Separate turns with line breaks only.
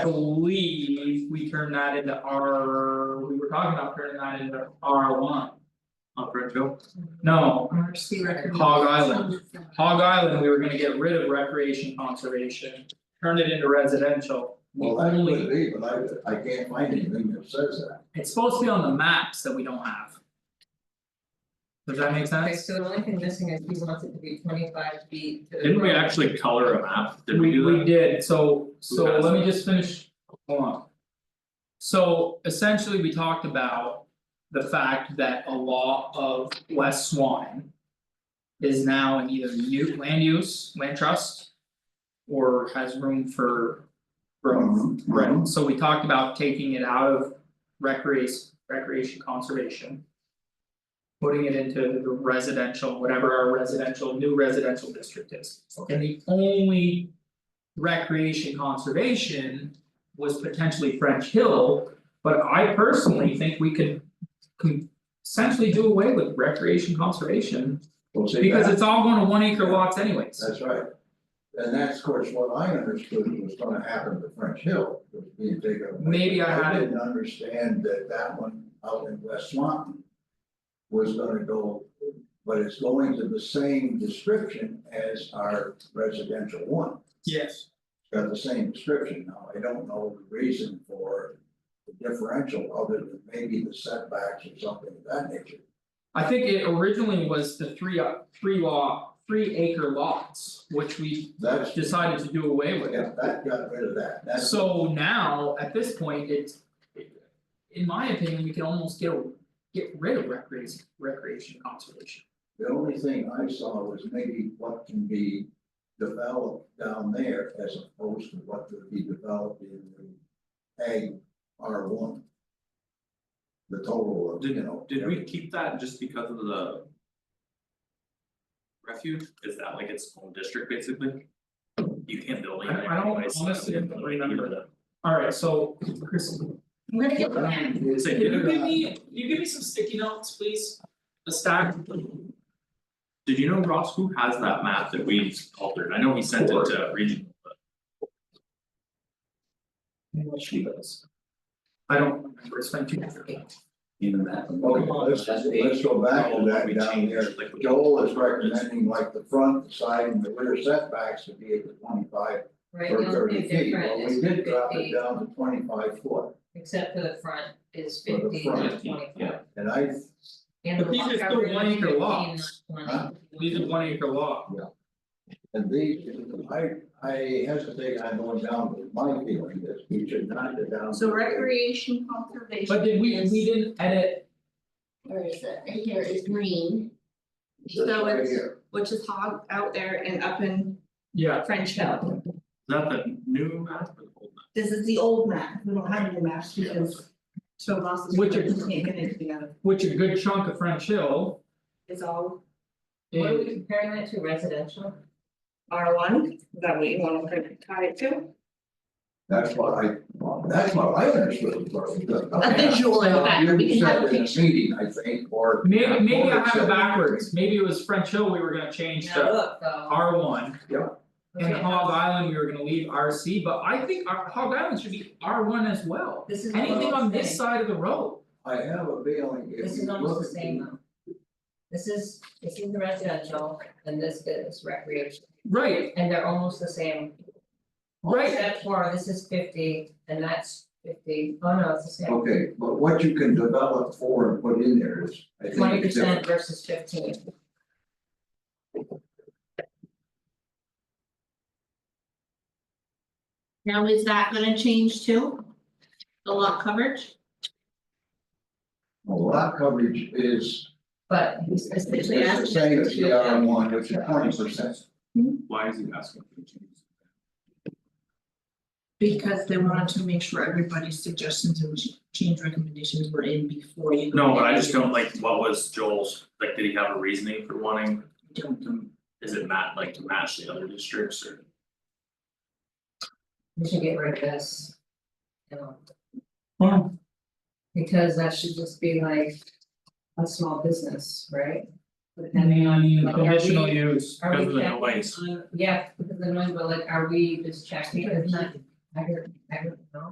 I believe we turned that into R, we were talking about turning that into R one. On Bridgeville, no,
RC recommends.
Hog Island. Hog Island, we were gonna get rid of recreation conservation, turn it into residential. We
Well, that
only-
could be, but I I can't find anything that says that.
it's supposed to be on the maps that we don't have. Does that make
Okay,
sense?
so the only thing missing is he wants it to be twenty five feet to the.
Didn't we
road.
actually color a map? Did we do
We
that?
did, so so
passed
let me
that?
just finish, hold on. So essentially, we talked about the fact that a law of West Swan. Is now in either new land use, land trust. Or has room for
Mm-hmm.
growth,
Mhm, mhm.
right, so we talked about taking it out of recreation, recreation conservation. Putting it into the residential, whatever our residential, new residential district is, and the only. Recreation conservation was potentially French Hill, but I personally think we could. com- essentially do away with recreation conservation,
Well, see,
because
that,
it's all going to one acre lots anyways.
that's right. And that's, of course, what I understood was gonna happen to French Hill, was being taken away.
Maybe I had it-
didn't understand that that one out in West Swanton. Was gonna go, but it's going to the same description as our residential one.
Yes.
got the same description now, I don't know the reason for the differential, other than maybe the setbacks or something of that nature.
I think it originally was the three uh three law, three acre lots, which we
That's,
decided to do away with.
yeah, that got rid of that, that's,
So now, at this point, it's. In my opinion, we can almost get get rid of recreation recreation conservation.
the only thing I saw was maybe what can be developed down there as opposed to what could be developed in the ag R one. The total of, you know.
Did we
everything.
keep that just because of the? Refuge, is that like its own district basically? You can't build anything
I- I don't-
anyways, so
honestly, I don't
like,
remember.
the-
Alright, so Chris,
I'm gonna get
But I
back.
don't-
Say,
can you give me, can you give me some sticky notes, please? A stack,
Did you know Ross, who has that map that we altered? I know he sent it to regional, but
what she does. I don't remember, it's been two years.
even that.
Okay, let's, let's go back to that
We
down
changed,
there.
like, we-
Joel is recommending like the front, the side and the rear setbacks to be at the twenty-five
Right,
or
the only
thirty
thing
feet,
different
well,
is
we did drop it
fifty,
down to twenty-five foot.
except for the front is
For the
fifty, not
front,
twenty five.
yeah.
And I,
And the
But these are
lot
still
coverage
one
is
acre
15,
lots.
not
Huh?
20.
These are one acre lot.
and these, I, I hesitate on going down, but my feeling is we should not go down.
So
to-
recreation conservation.
But did we, we
is-
didn't edit,
Where is it? Here is green,
This
so
right
it's-
here.
which is hog out there and up in
yeah,
French Hill.
Is that the new map or the old map?
This is the old map. We don't have any maps because show losses.
Which
we
is-
Can't get anything out of it.
which a good chunk of French Hill.
It's all
What are we
is-
comparing that to residential?
R one, that we want to tie it to.
That's what I, that's what I understood.
A visual in the back. We can have a
You said in a meeting, I think, or.
Maybe maybe I have
Or-
it backwards, maybe it was French Hill, we were gonna change
Now
to
look, though.
R one.
look
And
at
Hog
how-
Island, we were gonna leave R C, but I think our Hog Island should be R one as well.
This is
Anything on
almost the
this
same.
side of the road,
I have a feeling if
This
you
is
look
almost
at
the same though. This is, this is the residential and this is recreation,
right,
and they're almost the same.
right,
Except for this is fifty and that's fifty. Oh no, it's the same.
Okay, but what you can develop for and put in there is, I think.
Twenty
it's different.
percent versus fifteen.
Now, is that gonna change too? The lot coverage?
Well, lot coverage is,
But he's
is
essentially
the
asking.
same as the R
us
one, which is twenty percent.
Why is he asking for changes?
Because they wanted to make sure everybody's suggestions and change recommendations were in before you.
No, but I just don't like, what was Joel's, like, did he have a reasoning for wanting?
Don't
to- Is it mat, like to match the other districts or?
We should get rid of this. You know,
Hmm.
because that should just be like a small business, right?
Depending
Depending on
on the
Like, are
conditional
we-
use.
Are we
Because of the
checking
noise.
on- Yeah, because of the noise, but like, are we just checking, it's not, I don't, I don't know.